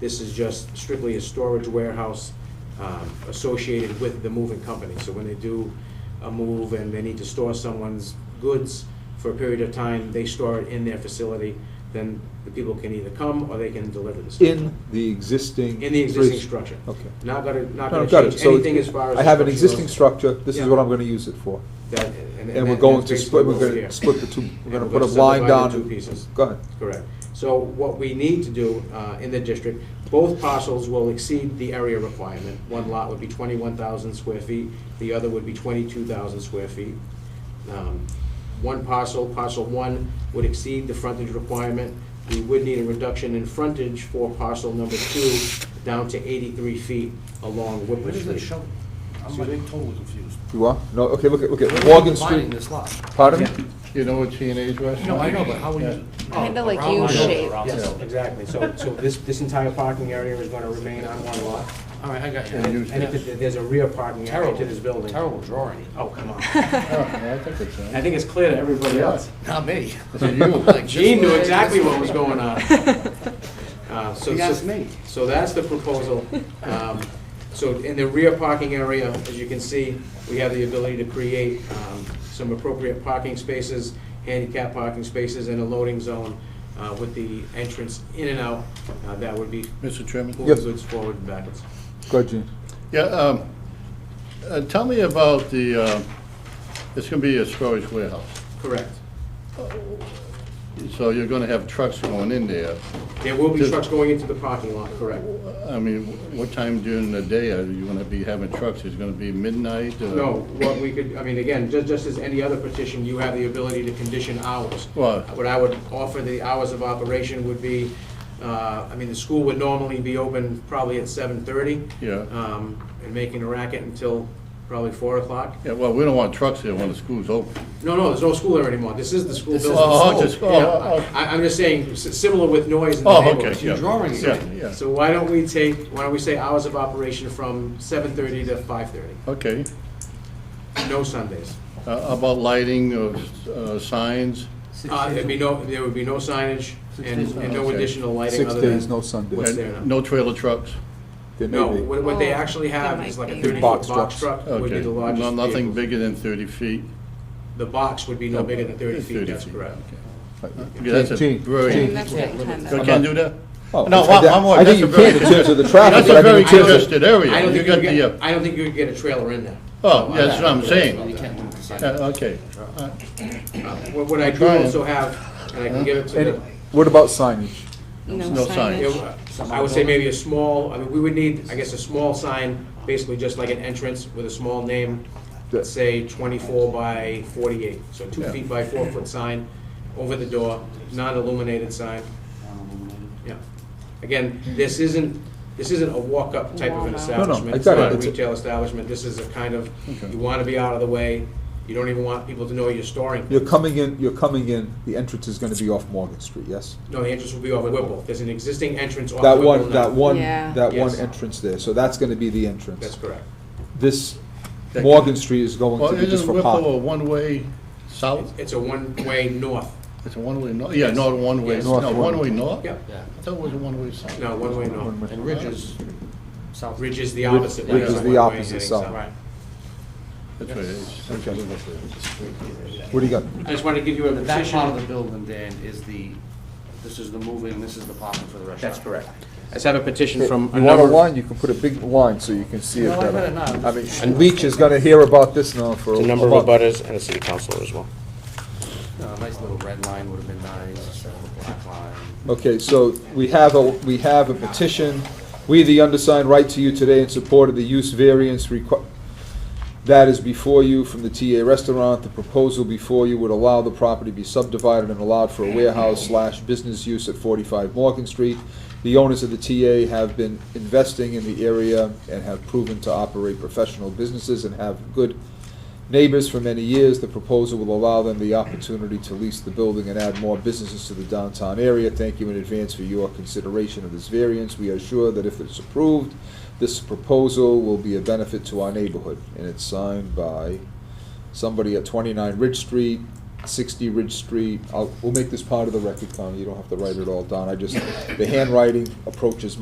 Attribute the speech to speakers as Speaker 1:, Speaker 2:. Speaker 1: This is just strictly a storage warehouse um, associated with the moving company. So when they do a move and they need to store someone's goods for a period of time, they store it in their facility, then the people can either come or they can deliver the stuff.
Speaker 2: In the existing.
Speaker 1: In the existing
Speaker 2: bridge-
Speaker 1: structure.
Speaker 2: Okay.
Speaker 1: Not gonna, not
Speaker 2: No,
Speaker 1: gonna
Speaker 2: got it.
Speaker 1: change
Speaker 2: So
Speaker 1: anything as far as.
Speaker 2: I have an
Speaker 1: the
Speaker 2: existing
Speaker 1: goes.
Speaker 2: structure, this is
Speaker 1: Yeah.
Speaker 2: what I'm gonna use it for.
Speaker 1: That-
Speaker 2: And we're
Speaker 1: that-
Speaker 2: going
Speaker 1: that's
Speaker 2: to
Speaker 1: basically
Speaker 2: split, we're
Speaker 1: what we're
Speaker 2: gonna
Speaker 1: here.
Speaker 2: split the two,
Speaker 1: And
Speaker 2: we're gonna
Speaker 1: we're
Speaker 2: put a
Speaker 1: gonna
Speaker 2: line down.
Speaker 1: subdivide the two pieces.
Speaker 2: Go ahead.
Speaker 1: Correct. So what we need to do uh, in the district, both parcels will exceed the area requirement. One lot would be 21,000 square feet, the other would be 22,000 square feet. Um, One parcel, parcel one, would exceed the frontage requirement. We would need a reduction in frontage for parcel number two, down to 83 feet along
Speaker 3: Where
Speaker 1: Whipple
Speaker 3: does it
Speaker 1: Street.
Speaker 3: show? I'm
Speaker 1: Excuse
Speaker 3: like
Speaker 1: me?
Speaker 3: totally confused.
Speaker 2: You are? No, okay, look at, look at
Speaker 3: Where are you
Speaker 2: Morgan
Speaker 3: dividing
Speaker 2: Street.
Speaker 3: this lot?
Speaker 2: Pardon?
Speaker 4: You know what G and H was?
Speaker 3: No, I know, but how would you?
Speaker 5: Kinda
Speaker 3: oh,
Speaker 5: like
Speaker 3: around-
Speaker 5: U-shaped.
Speaker 3: around-
Speaker 1: Yes, exactly. So, so this, this entire parking area is going to remain on one lot.
Speaker 3: All right, I got
Speaker 4: And
Speaker 3: you.
Speaker 4: you-
Speaker 1: And if there's a rear parking area
Speaker 3: Terrible,
Speaker 1: to this building.
Speaker 3: terrible drawing.
Speaker 1: Oh, come on.
Speaker 4: I think it's,
Speaker 1: I
Speaker 4: uh,
Speaker 1: think it's clear to everybody else.
Speaker 3: Not me.
Speaker 4: to you.
Speaker 3: Like, this
Speaker 1: Gene knew
Speaker 3: way,
Speaker 1: exactly
Speaker 3: this
Speaker 1: what
Speaker 3: way.
Speaker 1: was going on. Uh, so-
Speaker 3: He
Speaker 1: so-
Speaker 3: asked me.
Speaker 1: So that's the proposal. Um, So in the rear parking area, as you can see, we have the ability to create um, some appropriate parking spaces, handicap parking spaces, and a loading zone uh, with the entrance in and out. uh, That would be
Speaker 4: Mr. Chairman?
Speaker 1: moving goods forward and backwards.
Speaker 2: Go ahead, Gene.
Speaker 4: Yeah, um, uh, tell me about the, uh, it's gonna be a storage warehouse.
Speaker 1: Correct.
Speaker 4: So you're gonna have trucks going in there.
Speaker 1: There will be
Speaker 4: Just-
Speaker 1: trucks going into the parking lot, correct.
Speaker 4: I mean, what time during the day are you gonna be having trucks? Is it gonna be midnight? or-
Speaker 1: No, what we could, I mean, again, just, just as any other petition, you have the ability to condition hours.
Speaker 4: Right.
Speaker 1: What I would offer, the hours of operation would be, uh, I mean, the school would normally be open probably at seven thirty.
Speaker 4: Yeah.
Speaker 1: Um, and making a racket until probably four o'clock.
Speaker 4: Yeah, well, we don't want trucks there when the school's open.
Speaker 1: No, no, there's no school there anymore, this is the school
Speaker 3: This is
Speaker 1: building.
Speaker 4: Oh,
Speaker 3: school.
Speaker 4: oh, just, oh,
Speaker 1: Yeah,
Speaker 4: oh,
Speaker 1: I, I'm just saying, s- similar with noise in the
Speaker 4: oh, okay,
Speaker 1: neighborhood.
Speaker 4: yeah.
Speaker 3: drawing it.
Speaker 4: Yeah, yeah,
Speaker 1: So why don't we take, why don't we say hours of operation from seven thirty to five thirty,
Speaker 4: okay.
Speaker 1: no Sundays.
Speaker 4: Uh, About lighting of uh, signs?
Speaker 3: Six
Speaker 1: Uh,
Speaker 3: days
Speaker 1: there'd be
Speaker 3: a-
Speaker 1: no, there would be no signage
Speaker 3: Six
Speaker 1: and,
Speaker 3: days a
Speaker 1: and no
Speaker 4: week.
Speaker 1: additional lighting
Speaker 2: Six
Speaker 1: other than.
Speaker 2: days, no Sundays.
Speaker 1: what's there
Speaker 4: And
Speaker 1: now.
Speaker 4: No trailer trucks?
Speaker 2: There may
Speaker 1: No,
Speaker 2: be.
Speaker 1: what, what they
Speaker 5: Oh,
Speaker 1: actually have
Speaker 5: there
Speaker 1: is
Speaker 5: might
Speaker 1: like a
Speaker 5: be.
Speaker 1: thirty foot
Speaker 2: Box
Speaker 1: box
Speaker 2: trucks.
Speaker 1: truck would be
Speaker 4: Okay,
Speaker 1: the
Speaker 4: No-
Speaker 1: largest
Speaker 4: nothing
Speaker 1: vehicle.
Speaker 4: bigger than 30 feet?
Speaker 1: The box would be no bigger than thirty
Speaker 4: 30
Speaker 1: feet, that's
Speaker 4: feet,
Speaker 1: correct.
Speaker 4: okay. Uh, Yeah, that's a
Speaker 2: Gene,
Speaker 4: very-
Speaker 2: Gene,
Speaker 5: That's
Speaker 3: Yeah,
Speaker 5: what it
Speaker 3: limits.
Speaker 5: kinda-
Speaker 4: So I can't do that?
Speaker 2: Oh,
Speaker 4: No,
Speaker 2: I-
Speaker 4: one- one more.
Speaker 2: I think
Speaker 4: That's a
Speaker 2: you can
Speaker 4: very
Speaker 2: in terms of the
Speaker 4: congested-
Speaker 2: traffic,
Speaker 4: That's a
Speaker 2: but I
Speaker 4: very
Speaker 2: think in terms of.
Speaker 4: congested area.
Speaker 1: I don't
Speaker 4: You
Speaker 1: think
Speaker 4: got
Speaker 1: you'd
Speaker 4: the,
Speaker 1: get,
Speaker 4: uh,
Speaker 1: I don't think you could get a trailer in there.
Speaker 4: oh, yeah, that's what I'm saying.
Speaker 3: You can't move the sign.
Speaker 4: Uh, Okay. Uh,
Speaker 1: Uh, What, what I do
Speaker 4: trying.
Speaker 1: also have, and I can give it to
Speaker 2: And
Speaker 1: the,
Speaker 2: what about signage?
Speaker 4: No
Speaker 5: No
Speaker 4: sign.
Speaker 1: it
Speaker 5: signage.
Speaker 1: w- I would say maybe a small, I mean, we would need, I guess, a small sign, basically just like an entrance with a small name,
Speaker 2: Yeah.
Speaker 1: say twenty-four by forty-eight, so two
Speaker 4: Yeah.
Speaker 1: feet by four foot sign over the door, non-illuminated sign. Yeah. Again, this isn't, this isn't a walk-up type of an
Speaker 5: Walk-up.
Speaker 2: No, no,
Speaker 1: establishment.
Speaker 2: I
Speaker 1: It's
Speaker 2: got
Speaker 1: not
Speaker 2: it.
Speaker 1: a
Speaker 2: It's a-
Speaker 1: retail establishment. This is a kind of,
Speaker 4: Okay.
Speaker 1: you want to be out of the way. You don't even want people to know you're storing.
Speaker 2: You're coming in, you're coming in, the entrance is gonna be off Morgan Street, yes?
Speaker 1: No, the entrance will be off Whipple. There's an existing entrance off
Speaker 2: That
Speaker 1: Whipple
Speaker 2: one,
Speaker 1: now.
Speaker 2: that one,
Speaker 5: Yeah.
Speaker 2: that one
Speaker 1: Yes.
Speaker 2: entrance there, so that's gonna be the entrance.
Speaker 1: That's correct.
Speaker 2: This Morgan Street is going
Speaker 4: Well,
Speaker 2: to be just
Speaker 4: isn't
Speaker 2: for
Speaker 4: Whipple a
Speaker 2: parking.
Speaker 4: one-way south?
Speaker 1: It's a one-way north.
Speaker 4: It's a one-way north? Yeah, not a one-way,
Speaker 1: Yes.
Speaker 4: no,
Speaker 2: North one.
Speaker 4: one-way north?
Speaker 1: Yeah.
Speaker 3: Yeah,
Speaker 4: I thought it was a one-way south.
Speaker 1: No, one-way north.
Speaker 3: and Ridges, south.
Speaker 1: Ridge is the opposite.
Speaker 2: Ridge
Speaker 1: way,
Speaker 2: is
Speaker 1: so
Speaker 2: the
Speaker 1: one-way
Speaker 2: opposite
Speaker 1: heading
Speaker 2: side.
Speaker 1: south. Right.
Speaker 4: That's what it is.
Speaker 2: Okay. What do you got?
Speaker 1: I just wanted to give you a
Speaker 3: The back part of
Speaker 1: petition.
Speaker 3: the building, Dan, is the, this is the moving, this is the parking for the restaurant.
Speaker 1: That's correct. I just have a petition
Speaker 2: You
Speaker 1: from a
Speaker 2: want a
Speaker 1: number.
Speaker 2: line, you can put a big line so you can see it
Speaker 3: No, I
Speaker 2: better.
Speaker 3: better not.
Speaker 2: I mean, and Leach is gonna hear about this now for a
Speaker 1: A
Speaker 2: month.
Speaker 1: number of abutters and a city councilor as well.
Speaker 3: No, A nice little red line would have been nice, a little black line.
Speaker 2: Okay, so we have a, we have a petition. We, the undersigned, write to you today in support of the use variance requ- that is before you from the TA restaurant. The proposal before you would allow the property to be subdivided and allowed for a warehouse slash business use at forty-five Morgan Street. The owners of the TA have been investing in the area and have proven to operate professional businesses and have good neighbors for many years. The proposal will allow them the opportunity to lease the building and add more businesses to the downtown area. Thank you in advance for your consideration of this variance. We are sure that if it's approved, this proposal will be a benefit to our neighborhood. And it's signed by somebody at 29 Ridge Street, 60 Ridge Street. I'll, we'll make this part of the record, Connie. You don't have to write it all down. I just, the handwriting approaches